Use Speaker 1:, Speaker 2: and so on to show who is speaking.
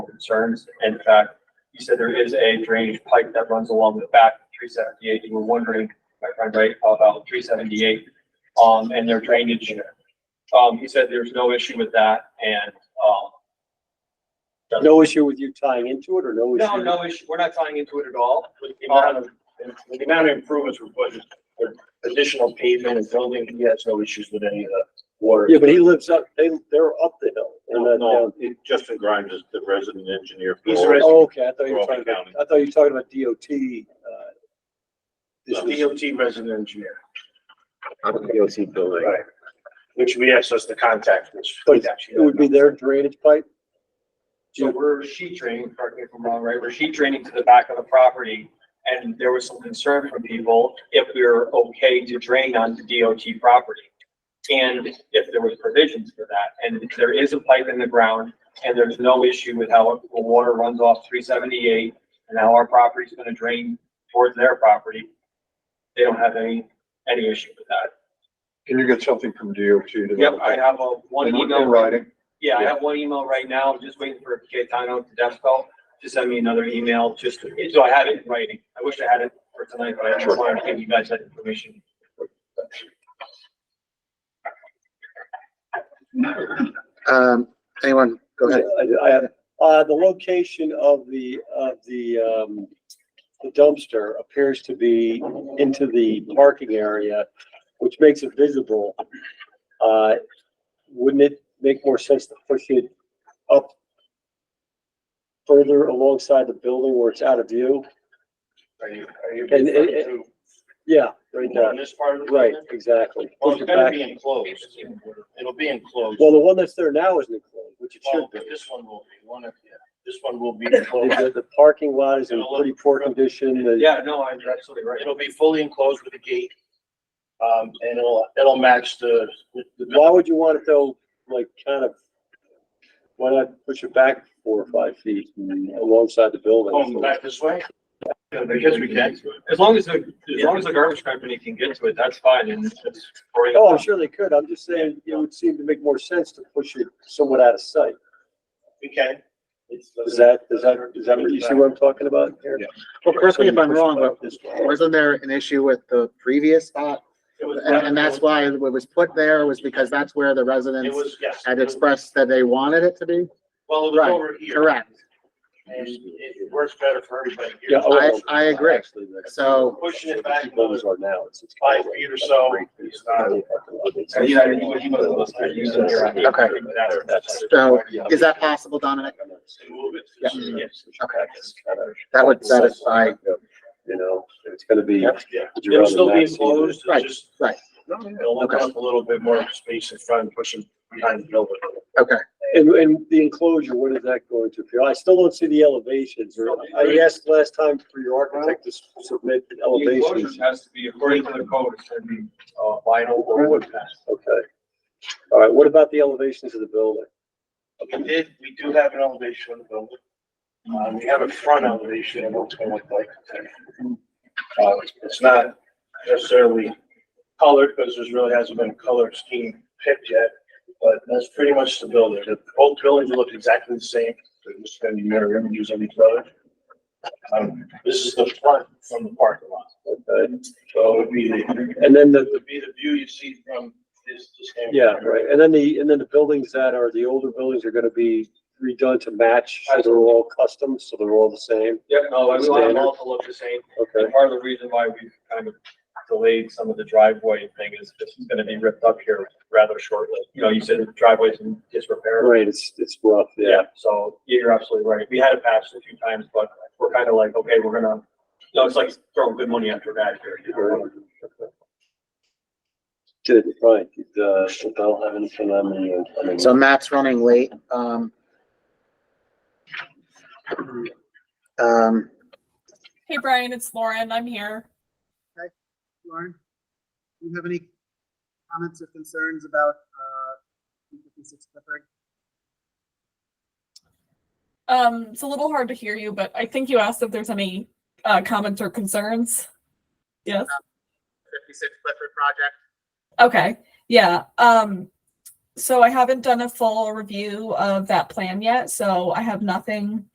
Speaker 1: concerns. In fact, he said there is a drainage pipe that runs along the back of three seventy-eight. You were wondering, my friend, right, about three seventy-eight, um, and their drainage. Um, he said there's no issue with that and, um,
Speaker 2: No issue with you tying into it or no issue?
Speaker 1: no, no issue. We're not tying into it at all.
Speaker 3: With the amount
Speaker 1: Um,
Speaker 3: of, with the amount of improvements we're putting, with additional pavement and building, he has no issues with any of the water. uh,
Speaker 2: Yeah, but he lives up, they, they're up the hill. They're
Speaker 4: No,
Speaker 2: not
Speaker 4: no,
Speaker 2: down.
Speaker 4: it- Justin Grimes is the resident engineer. for
Speaker 3: He's
Speaker 4: all-
Speaker 3: a resident.
Speaker 2: Oh, okay, I thought you were talking
Speaker 4: Crawford
Speaker 2: about, I thought you were talking about DOT, uh.
Speaker 3: He's
Speaker 2: this
Speaker 3: a
Speaker 2: was-
Speaker 3: DOT resident engineer,
Speaker 5: on the DOT building.
Speaker 3: Right. which we asked us to contact, which.
Speaker 2: But It would be their drainage pipe?
Speaker 1: So we're sheet draining, correct me if I'm wrong, right? We're sheet draining to the back of the property. And there was some concern from people if we were okay to drain onto DOT property. And if there was provisions for that. And there is a pipe in the ground and there's no issue with how the water runs off three seventy-eight and how our property's gonna drain towards their property. They don't have any, any issue with that.
Speaker 6: Can you get something from DOT to?
Speaker 1: Yep, I have a one
Speaker 6: In
Speaker 1: email.
Speaker 6: in writing,
Speaker 1: Yeah, I have one email right now, I'm just waiting for Gaetano Tedesco to send me another email, just, so I have it in writing. I wish I had it for tonight, but I just wanted to give you guys that information.
Speaker 5: Um, anyone, go ahead.
Speaker 2: I, I have, uh, the location of the, of the, um, the dumpster appears to be into the parking area, which makes it visible. Uh, wouldn't it make more sense to push it up further alongside the building where it's out of view?
Speaker 3: Are you, are you
Speaker 2: And- and-
Speaker 3: referring
Speaker 2: Yeah, right
Speaker 3: to
Speaker 2: there.
Speaker 3: on this part of the?
Speaker 2: Right,
Speaker 3: building?
Speaker 2: exactly.
Speaker 3: Well,
Speaker 2: Push
Speaker 3: it's
Speaker 2: it
Speaker 3: gonna
Speaker 2: back.
Speaker 3: be enclosed, it'll be enclosed.
Speaker 2: Well, the one that's there now isn't enclosed, which it
Speaker 3: Well,
Speaker 2: should be.
Speaker 3: this one will be, one of, yeah, this one will be enclosed.
Speaker 2: The, the parking lot is in pretty poor condition. The-
Speaker 1: Yeah, no, I- you're absolutely right.
Speaker 3: It'll be fully enclosed with a gate. Um, and it'll, it'll match the, the- the,
Speaker 2: Why would you want it though, like kind of, why not push it back four or five feet alongside the
Speaker 3: going
Speaker 2: building?
Speaker 3: back this way. Because we can.
Speaker 1: As long as, the as long as the garbage company can get to it, that's fine, and it's.
Speaker 2: Oh, I'm sure they could. I'm just saying, it would seem to make more sense to push it somewhat out of sight.
Speaker 3: We can. It's-
Speaker 2: Is that, is that, is that what you see what I'm talking about here?
Speaker 4: Yeah.
Speaker 5: Well, correct me if I'm wrong, but
Speaker 2: This way.
Speaker 5: wasn't there an issue with the previous spot?
Speaker 3: It was-
Speaker 5: And, and that's why it was put there was because that's where the
Speaker 3: It
Speaker 5: residents
Speaker 3: was, yes.
Speaker 5: had expressed that they wanted it to be?
Speaker 3: Well, it was
Speaker 5: right,
Speaker 3: over here.
Speaker 5: Correct.
Speaker 3: And it it works better for everybody here.
Speaker 2: Yeah, oh,
Speaker 5: I- I agree.
Speaker 2: actually, that's-
Speaker 5: So-
Speaker 3: Pushing it back
Speaker 2: People always are now. It's- it's-
Speaker 3: Five feet or so. It's not-
Speaker 5: Okay. So is that possible, Dominic?
Speaker 3: Move it.
Speaker 5: Yeah.
Speaker 3: Yes.
Speaker 5: Okay, that would satisfy,
Speaker 2: You know, it's gonna be.
Speaker 3: Yeah. It'll still be enclosed,
Speaker 5: Right,
Speaker 3: it's just.
Speaker 5: right.
Speaker 3: It'll open up a little bit more space in front, and pushing behind the building.
Speaker 5: okay.
Speaker 2: And, and the enclosure, what is that going to appear? I still don't see the elevations. or- I asked last time for your architect to s- submit
Speaker 1: The enclosure
Speaker 2: elevations.
Speaker 1: has to be, according to the code, it's gonna be, uh, vinyl or wood fence.
Speaker 2: Okay. All right, what about the elevations of the building?
Speaker 3: We did, we do have an elevation of the building. Um, we have a front elevation of what it's gonna look like. Uh, it's not necessarily colored, because there's really hasn't been a color scheme picked yet. But that's pretty much the building. The both buildings look exactly the same. They're just gonna be mirror images of each other. Um, this is the front from the parking lot.
Speaker 2: Okay,
Speaker 3: So it would be the,
Speaker 2: and then
Speaker 3: it
Speaker 2: the,
Speaker 3: would be the view you see from this. this hand.
Speaker 2: yeah, right, and then the, and then the buildings that are, the older buildings are gonna be redone to match, so they're all custom, so they're all the same,
Speaker 1: Yep, no, we want them all to look the same.
Speaker 2: okay?
Speaker 1: And part of the reason why we've kind of delayed some of the driveway thing is this is gonna be ripped up here rather shortly. You know, you said the driveway's in disrepair.
Speaker 2: Right, it's, it's rough, yeah.
Speaker 1: So yeah, you're absolutely right. We had it patched a few times, but we're kind of like, okay, we're gonna, no, it's like throwing good money after bad here. you know?
Speaker 2: Did, right, did, uh, Bell have anything on the, uh, on the?
Speaker 5: So Matt's running late, um. Um,
Speaker 7: Hey Brian, it's Lauren. I'm here.
Speaker 8: Lauren, do you have any comments or concerns about uh, 256 Clifford?
Speaker 7: Um, it's a little hard to hear you, but I think you asked if there's any uh, comments or concerns. Yes.
Speaker 8: 56 Clifford project?
Speaker 7: Okay. Yeah. Um, so I haven't done a full review of that plan yet, so I have nothing